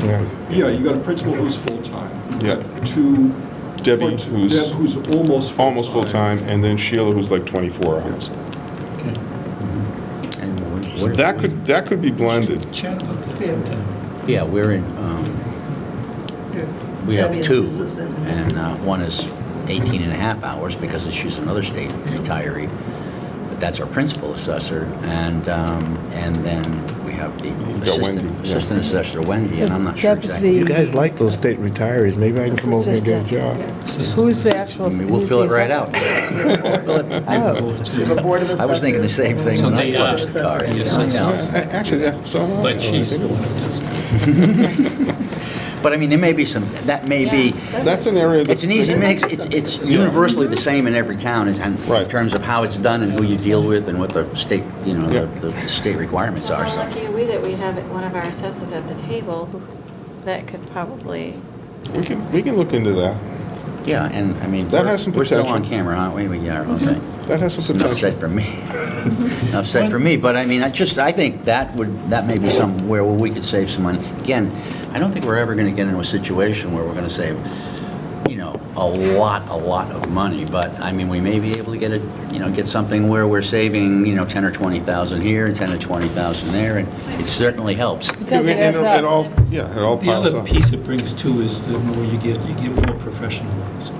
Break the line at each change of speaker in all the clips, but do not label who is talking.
Yeah.
Yeah, you got a principal who's full-time,
Yeah,
two.
Debbie,
or
who's-
Deb, who's almost full-time.
almost full-time, and then Sheila, who's like 24 hours.
And what- what if
That
we-
could, that could be blended.
Chat about that sometime.
Yeah, we're in, um, we have
Debbie
two,
is assistant.
and uh, one is 18 and a half hours because she's another state retiree, but that's our principal assessor, and, um, and then we have the
You've got Wendy,
assistant,
yeah.
assistant assessor Wendy,
So
and I'm not sure
Deb's
exactly.
the-
You guys like those state retirees, maybe I can come over and get a
Assistant.
job.
Who's the actual?
I mean, We'll
who's
fill
the
it right out.
assessor? Oh,
You have a board of
I
assessors.
was thinking the same thing
So
when I
they uh,
flushed
asked,
the car.
yes,
Yeah,
yes.
yeah.
Uh, A- Actually, yeah, so. uh,
But she's the
think
one
about it.
who does that.
But I mean, there may be some, that may be,
That's an area that's.
it's an easy mix, it's, it's universally the same in every town in in
Right.
terms of how it's done and who you deal with and what the state, you know,
Yeah.
the- the state requirements
Well,
are,
How
so.
lucky are we that we have one of our assessors at the table who, that could probably,
We can, we can look into that.
Yeah, and I mean,
That has some
we're still on
potential. Mm-hmm.
camera, aren't we? We are, okay.
That has some
Enough
potential.
said for me. Enough said for me, but I mean, I just, I think that would, that may be somewhere where we could save some money. Again, I don't think we're ever going to get into a situation where we're going to save, you know, a lot, a lot of money, but I mean, we may be able to get a, you know, get something where we're saving, you know, 10 or 20,000 here and 10 or 20,000 there, and it certainly helps.
it does, it
And-
adds
and It
up.
all, yeah, it all
The
piles
other
up.
piece it brings too is that where you get, you get more professionalized,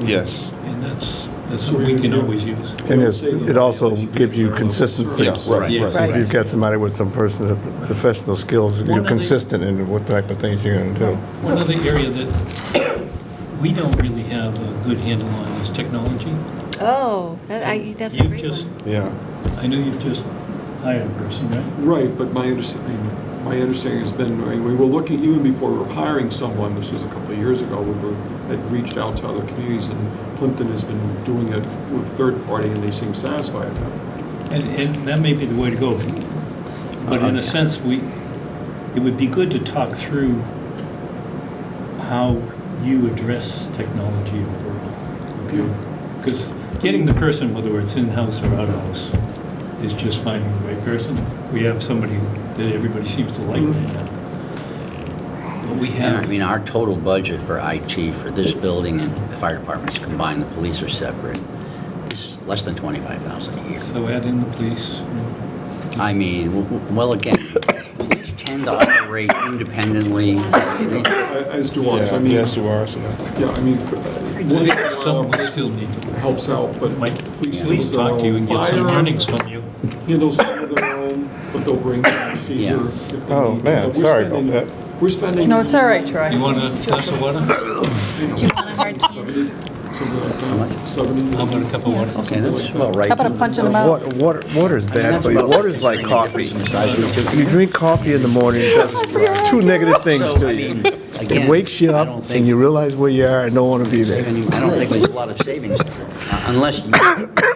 Yes.
and that's, that's what we can always use.
And it's- it also gives you consistency.
Yeah, right,
Yes.
right.
If you've got somebody with some personal, professional skills,
One
you're
of the-
consistent in what type of things you're going to do.
One other area that we don't really have a good handle on is technology.
oh, that- I- that's a
You've
great
just-
one.
Yeah.
I know you've just hired a person, right?
Right, but my understanding, my understanding has been, I mean, we were looking, even before we were hiring someone, this was a couple of years ago, we were, had reached out to other communities, and Plimpton has been doing it with third party, and they seem satisfied with that.
And, and that may be the way to go. But in a sense, we, it would be good to talk through how you address technology overall. Because getting the person, whether it's in-house or out-of-house, is just finding the right person. We have somebody that everybody seems to like right now. But we
And I
have,
mean, our total budget for IT for this building and the fire departments combined, the police are separate, is less than 25,000 a year.
so add in the police.
I mean, w- w- well, again, police tend to operate independently.
As do ours, I
Yeah,
mean,
yes,
yeah,
you are, so, yeah.
I mean,
Police,
uh,
Some we still need to,
helps out, but
might
police
at least talk to you and get some earnings from you.
handle some of their own, but they'll bring Caesar if they need to.
Oh, man,
But we're
sorry about
spending-
that.
We're spending.
No, it's all right, Troy.
You want a glass of water? How
Do you want a hard candy? Something like that, 70.
about a cup of water?
Okay, that's well, right.
How about a punch in the mouth?
Water, water- water's bad for you. Water's like coffee. You drink coffee in the morning, it does two negative things to you. It wakes you up and you realize where you are and don't want to be
I
there.
don't think there's a lot of savings there, uh, unless you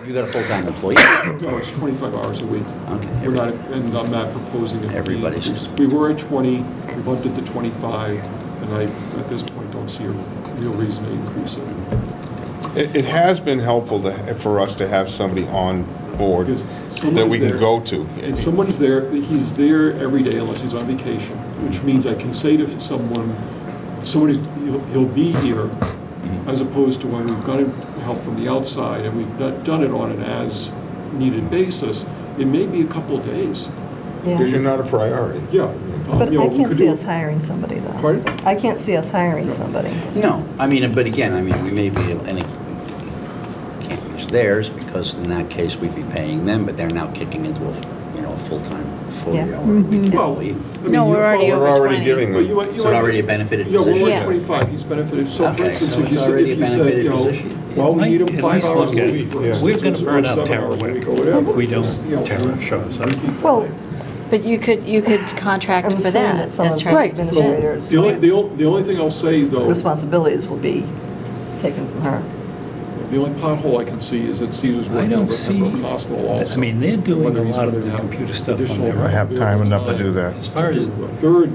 you got a full-time employee.
No, Oh, it's 25 hours a week.
Okay.
We're not, and I'm not proposing it. to be
Everybody's-
increased. We were at 20, we bumped it to 25, and I, at this point, don't see a real reason to increase it.
It, it has been helpful to, for us to have somebody on board
Because
that
someone's
we can
there.
go to.
And someone's there, he's there every day unless he's on vacation, which means I can say to someone, somebody, he'll, he'll be here,
Mm-hmm.
as opposed to when we've gotten help from the outside and we've not done it on an as-needed basis, it may be a couple of days.
Because you're not a priority.
Yeah. um,
But
you know,
I
we
can't
could
see
do-
us hiring somebody, though.
Pardon?
I can't see us hiring somebody.
No, I mean, but again, I mean, we may be, and it can't use theirs, because in that case, we'd be paying them, but they're now kicking into a, you know, a full-time,
Yeah.
full-hour
Mm-hmm.
Well,
employee.
I mean,
No,
you-
we're already
well,
We're
over
already
20.
giving
But you
them.
want- you
It's
want-
already a benefited
Yeah, we're
position.
at
Yes.
25, he's benefited, so for
Okay,
instance,
so
if you
it's
said,
already
if
a
you said, you
benefited
know,
position.
well, we need him
At
five
least
hours a
look at-
week. for
yeah.
instance,
We're gonna
or
burn out
seven
Tara
hours a
Wick
week, or whatever.
if we don't-
You know,
Tara shows up.
we'd be fine.
Well,
But you could, you could contract
I'm
for
assuming that
that,
some
as
of the
Charlie just said.
administrators,
The only, the only, the only thing I'll say though, the
responsibilities will be taken from her.
only pothole I can see is that Caesar's
I
working
don't
over at
see,
Pembroke Hospital also.
I mean, they're doing a
Whether he's
lot of
gonna
the
have
computer stuff on
additional-
their
I
own.
have time enough to do that.
As far as
A Third,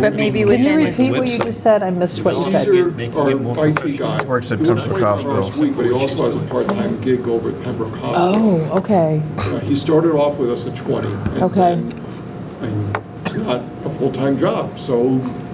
But
Can
maybe
you
within this,
repeat what you just said? I missed what you said.
Caesar,
Making it more
our IT
professional.
guy.
Works at
he works
Pembroke
25 hours a
Hospital.
week, But he also has a part-time gig over at Pembroke Hospital.
Oh, okay.
Yeah, He started off with us at 20. and
Okay.
then- And it's not a full-time job, so